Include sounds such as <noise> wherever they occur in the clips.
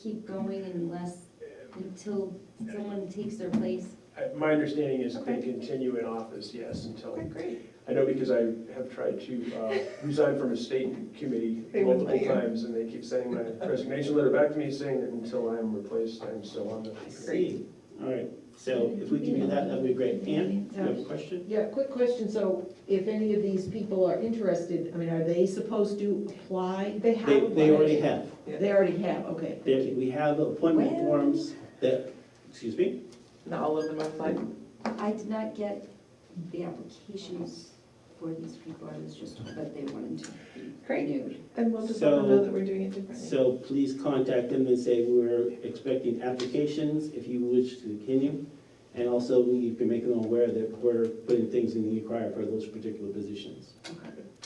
keep going unless, until someone takes their place? Uh, My understanding is that they Okay. continue in office, yes, until, Okay, great. I know because I have tried to uh, resign from a state committee They wouldn't multiple let you. times, and they keep sending my resignation letter back to me saying that until I am replaced, I'm still on the. Great, all right, so if we can do that, that'd be great. Ann, you have a question? Yeah, quick question, so if any of these people are interested, I mean, are they supposed to apply? They They, have. they already have, They already have, okay, thank They- you. we have appointment Well- forms that, excuse me? Not all of them are applied. I did not get the applications for these people, I was just told that they wanted to be Great. renewed. And we'll just let So- them know that we're doing it differently. So please contact them and say we're expecting applications if you wish to continue. And also, you can make them aware that we're putting things in the inquiry for those particular positions.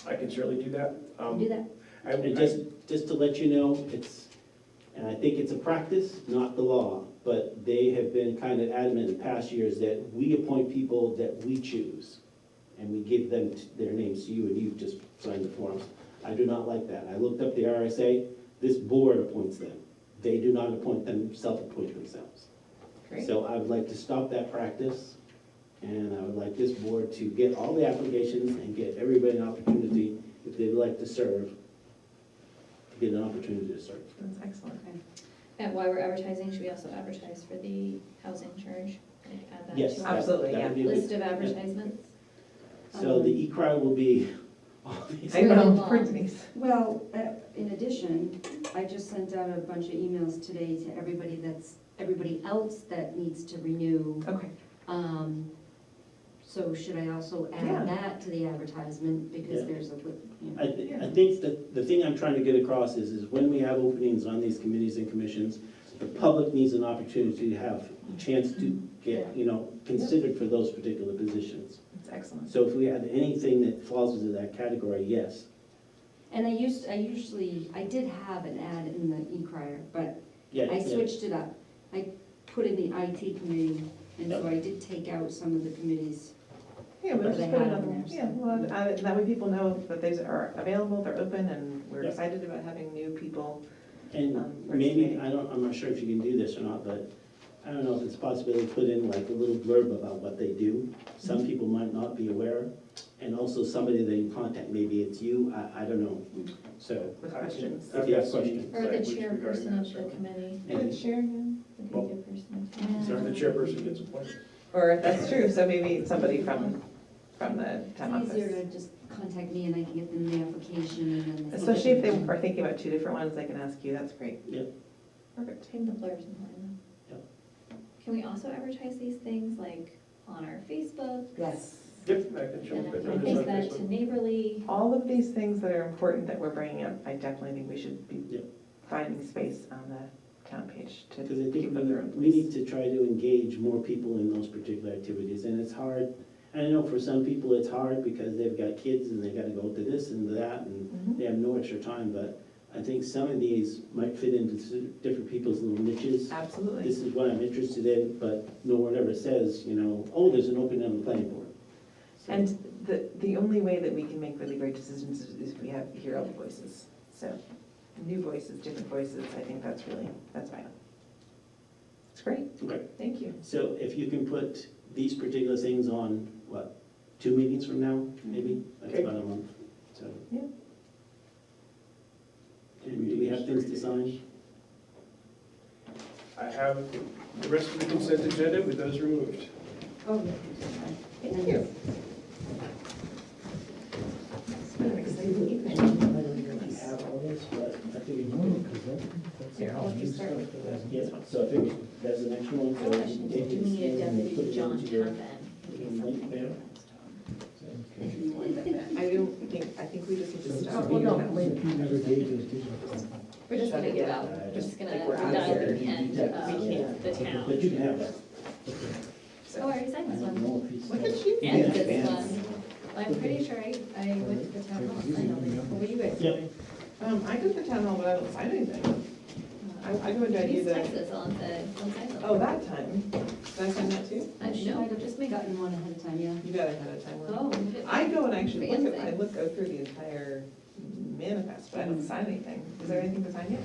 I can certainly do that. Um, Do that, I- And just, just to let you know, it's, and I think it's a practice, not the law, but they have been kind of adamant in past years that we appoint people that we choose. And we give them t- their names to you and you just sign the forms. I do not like that. I looked up the RSA, this board appoints them. They do not appoint them, self-appoint themselves. Great. So I would like to stop that practice, and I would like this board to get all the applications and get everybody an opportunity, if they'd like to serve, to get an opportunity to serve. That's excellent. And while we're advertising, should we also advertise for the housing charge? Like, add that Yes. to that- our Absolutely, that would be a good- List of advertisements? So the e-cry will be <laughs> all these. I know, poor Denise. well, uh, in addition, I just sent out a bunch of emails today to everybody that's, everybody else that needs to renew. Okay, Um, So should I also Yeah. add that to the advertisement, because Yeah. there's a, li- you know. I, thi- I think that, the thing I'm trying to get across is, is when we have openings on these committees and commissions, the public needs an opportunity to have a chance to get, you know, considered for those particular positions. that's excellent. So if we have anything that falls into that category, yes. And I used, I usually, I did have an ad in the e-crier, but Yeah, I yeah. switched it up. I put in the IT committee, and so I did take out some of the committees. Yeah, we'll But they just put have it on them there. there, so- Yeah, well, add it, and that way people know that these are available, they're open, and we're Yeah. excited about having new people. Um, And first maybe, meeting. I don't, I'm not sure if you can do this or not, but I don't know if it's possible to put in like a little blurb about what they do. Mm-hmm. Some people might not be aware, and also somebody they contact, maybe it's you, I, I don't know, so. With questions. If you have questions. Or the Language regarding chairperson that, of so- the committee, And- Sharon. the committee person. of the- So the chairperson gets appointed. Or, that's true, so maybe somebody from, from the town It's easier office. to just contact me and I can get them the application and then. Especially if they are thinking about two different ones, they can ask you, that's great. Yeah. Perfect. Putting the blurbs in line. though. Yep. Can we also advertise these things like on our Facebook? Yes. Yep, I can And jump I in. can take that to neighborly. All of these things that are important that we're bringing up, I definitely think we should Yeah. be finding space on the town page to Because I think keep them their own we, we need place. to try to engage more people in those particular activities, and it's hard. I know for some people it's hard because they've got kids and they gotta go to this and that, and Mhm. they have no extra time, but I think some of these might fit into s- different people's little niches. Absolutely. This is what I'm interested in, but no one ever says, you know, oh, there's an opening on the planning board. So- And the, the only way that we can make really great decisions is- is if we have, hear all the voices. So, new voices, different voices, I think that's really, that's vital. It's great, Okay. thank you. So if you can put these particular things on, what, two meetings from now, maybe? Mm-hmm. That's Okay. about a month, so. Yeah. And do we have things to sign? I have the rest of the consent agenda with those removed. Oh, Thank you. It's been an exciting evening. Here, I'll let you start with the- Yes, so I think that's the next one, so you can Question, take do we this need a and deputy put to it John into your. <laughs> Tappan? your link there. I don't think, I think we just need to stop. Well, no, wait. We're just gonna give up, Uh, we're just gonna Like, we're out dial here. the end We of can't. the But you can town. have that. Oh, I already I signed this don't one. know if he's. Look at you. Yeah. And this one. I'm pretty sure I, I went to the town hall, and signed all these. What were you guys Yep. doing? Um, I go to the town hall, but I don't sign anything. I, Uh, I go and I do You just the, texted us on the, on the. oh, that time. Did I sign that too? I She know, might have just just make. gotten one ahead of time, yeah. You got ahead of time. weren't you? Oh. I go and actually look at, I Fancy. Mm-hmm. look, go through the entire manifest, but I don't sign anything. Is there anything to sign yet?